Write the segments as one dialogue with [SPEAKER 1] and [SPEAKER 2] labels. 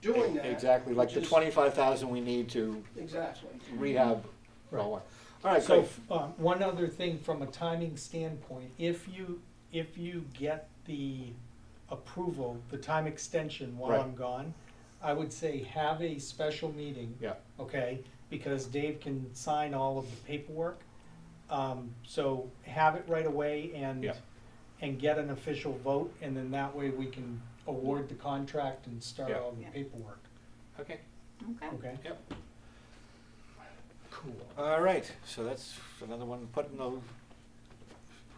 [SPEAKER 1] E- exactly, like the
[SPEAKER 2] Which is-
[SPEAKER 1] twenty-five thousand we need to
[SPEAKER 2] Exactly.
[SPEAKER 1] rehab.
[SPEAKER 3] Right.
[SPEAKER 1] All right,
[SPEAKER 3] So,
[SPEAKER 1] great,
[SPEAKER 3] f- um, one other thing from a timing standpoint, if you, if you get the approval, the time extension while
[SPEAKER 1] Right.
[SPEAKER 3] I'm gone, I would say have a special meeting.
[SPEAKER 1] Yeah.
[SPEAKER 3] Okay, because Dave can sign all of the paperwork. Um, so have it right away and,
[SPEAKER 1] Yeah.
[SPEAKER 3] and get an official vote, and then that way we can award the contract and start
[SPEAKER 1] Yeah.
[SPEAKER 3] all the
[SPEAKER 4] Yeah.
[SPEAKER 3] paperwork,
[SPEAKER 1] okay,
[SPEAKER 4] Okay.
[SPEAKER 3] okay?
[SPEAKER 1] Yep.
[SPEAKER 3] Cool.
[SPEAKER 1] all right, so that's another one put in the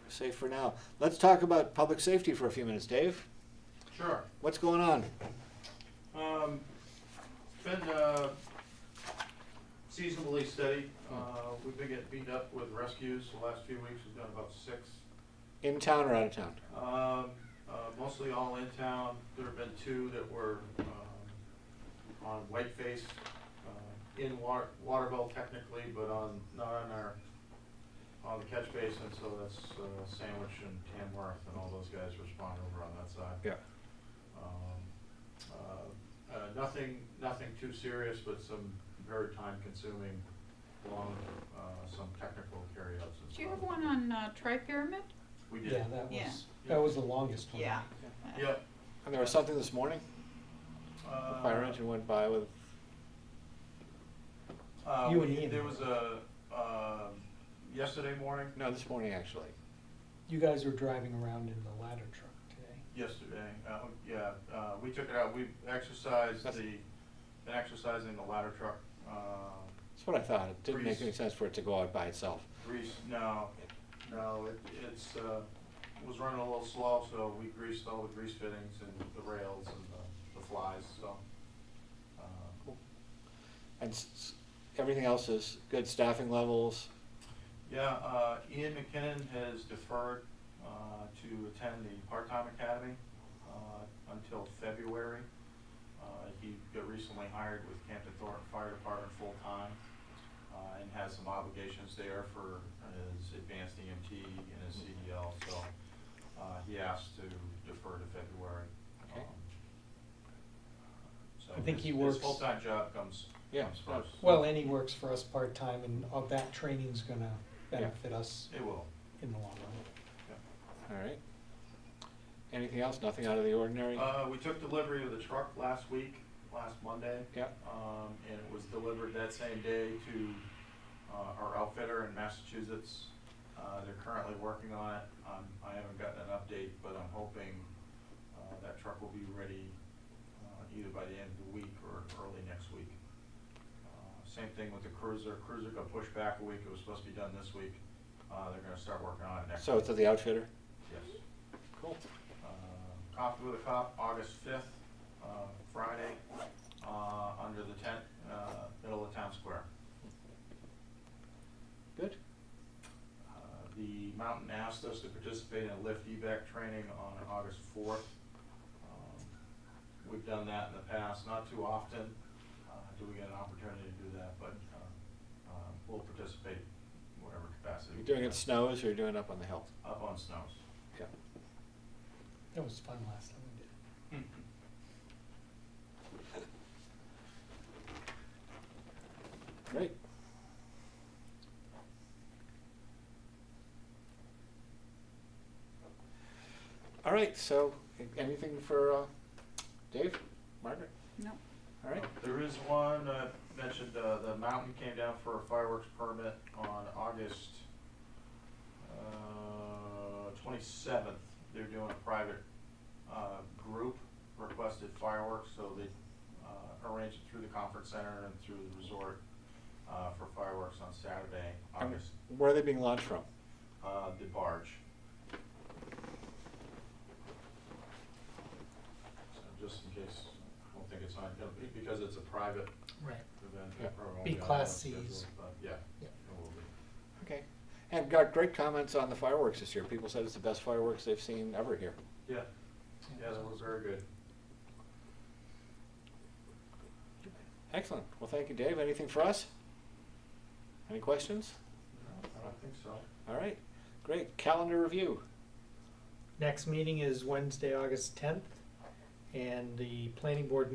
[SPEAKER 1] safe for now. Let's talk about public safety for a few minutes, Dave,
[SPEAKER 5] Sure.
[SPEAKER 1] what's going on?
[SPEAKER 5] Um, been, uh, seasonably steady. Uh, we've been getting beat up with rescues the last few weeks. We've done about six.
[SPEAKER 1] In town or out of town?
[SPEAKER 5] Um, uh, mostly all in town. There have been two that were, um, on Whiteface, uh, in water, Waterville technically, but on, not on our, on the catch basin, so that's, uh, Sandwich and Tamworth and all those guys respond over on that side.
[SPEAKER 1] Yeah.
[SPEAKER 5] Um, uh, uh, Nothing, nothing too serious, but some very time-consuming, long, uh, some technical carryouts and stuff.
[SPEAKER 4] Do you have one on uh, Tri Pyramid?
[SPEAKER 5] We
[SPEAKER 3] Yeah,
[SPEAKER 5] did.
[SPEAKER 3] that
[SPEAKER 4] Yeah.
[SPEAKER 3] was, that was the longest one.
[SPEAKER 4] Uh,
[SPEAKER 5] Yep.
[SPEAKER 1] And there was something this morning, the
[SPEAKER 5] Uh,
[SPEAKER 1] fire engine went by with,
[SPEAKER 5] uh,
[SPEAKER 3] You and
[SPEAKER 5] we-
[SPEAKER 3] Ian.
[SPEAKER 5] There was a, um, yesterday morning,
[SPEAKER 1] no, this morning actually.
[SPEAKER 3] You guys were driving around in the ladder truck today.
[SPEAKER 5] yesterday, uh, yeah, uh, we took it out, we exercised the,
[SPEAKER 1] That's-
[SPEAKER 5] been exercising the ladder truck, uh,
[SPEAKER 1] That's what I thought, it didn't make
[SPEAKER 5] Breeze.
[SPEAKER 1] any sense for it to go out by itself.
[SPEAKER 5] Grease, no, no, it, it's, uh, was running a little slow, so we greased all the grease fittings and the rails and the, the flies, so. uh,
[SPEAKER 1] And s- s- everything else is good staffing levels,
[SPEAKER 5] Yeah, uh, Ian McKinnon has deferred, uh, to attend the part-time academy, uh, until February. Uh, he got recently hired with Camden Thornton Fire Department full-time, uh, and has some obligations there for his advanced EMT and his CDL, so, uh, he asked to defer to February.
[SPEAKER 1] Okay.
[SPEAKER 5] Um, So
[SPEAKER 3] I think
[SPEAKER 5] his-
[SPEAKER 3] he works-
[SPEAKER 5] His full-time job comes,
[SPEAKER 1] Yeah,
[SPEAKER 5] comes
[SPEAKER 1] no.
[SPEAKER 5] first.
[SPEAKER 3] Well, and he works for us part-time and all that training's gonna
[SPEAKER 1] Yeah.
[SPEAKER 3] benefit us
[SPEAKER 5] It will,
[SPEAKER 3] in the long run.
[SPEAKER 5] yeah.
[SPEAKER 1] all right. Anything else, nothing out of the ordinary?
[SPEAKER 5] Uh, we took delivery of the truck last week, last Monday.
[SPEAKER 1] Yeah.
[SPEAKER 5] Um, and it was delivered that same day to, uh, our outfitter in Massachusetts. Uh, they're currently working on it. Um, I haven't gotten an update, but I'm hoping, uh, that truck will be ready, uh, either by the end of the week or early next week. Uh, Same thing with the cruiser. Cruiser got pushed back a week. It was supposed to be done this week. Uh, they're gonna start working on it next
[SPEAKER 1] So
[SPEAKER 5] week.
[SPEAKER 1] it's at the outfitter?
[SPEAKER 5] Yes.
[SPEAKER 1] Cool.
[SPEAKER 5] Uh, Coffee with a Cop, August fifth, uh, Friday, uh, under the tent, uh, middle of town square.
[SPEAKER 1] Good.
[SPEAKER 5] Uh, The mountain asked us to participate in lift evac training on August fourth. Um, We've done that in the past, not too often, uh, do we get an opportunity to do that, but, uh, uh, we'll participate in whatever capacity.
[SPEAKER 1] You're
[SPEAKER 5] we
[SPEAKER 1] doing
[SPEAKER 5] can.
[SPEAKER 1] it snows or you're doing it up on the hill?
[SPEAKER 5] Up on snows.
[SPEAKER 1] Yeah.
[SPEAKER 3] That was fun last time we did it.
[SPEAKER 1] Great. All right, so a- anything for uh, Dave, Margaret?
[SPEAKER 4] No.
[SPEAKER 1] All right,
[SPEAKER 5] There is one, uh, mentioned, uh, the mountain came down for a fireworks permit on August, uh, twenty-seventh. They're doing a private, uh, group requested fireworks, so they, uh, arranged it through the conference center and through the resort, uh, for fireworks on Saturday,
[SPEAKER 1] And
[SPEAKER 5] August,
[SPEAKER 1] where are they being launched from?
[SPEAKER 5] uh, the barge. So just in case, I don't think it's on, because it's a private
[SPEAKER 3] Right.
[SPEAKER 5] event,
[SPEAKER 1] Yeah.
[SPEAKER 5] it probably won't
[SPEAKER 3] Be
[SPEAKER 5] on the
[SPEAKER 3] Class
[SPEAKER 5] schedule,
[SPEAKER 3] Cs.
[SPEAKER 5] but Yeah.
[SPEAKER 3] Yeah.
[SPEAKER 5] it will be.
[SPEAKER 1] Okay, and got great comments on the fireworks this year. People said it's the best fireworks they've seen ever here.
[SPEAKER 5] Yeah, yeah, that was very good.
[SPEAKER 1] Excellent, well, thank you, Dave. Anything for us? Any questions?
[SPEAKER 5] No, I don't think so.
[SPEAKER 1] All right, great. Calendar review.
[SPEAKER 3] Next meeting is Wednesday, August tenth, and the planning board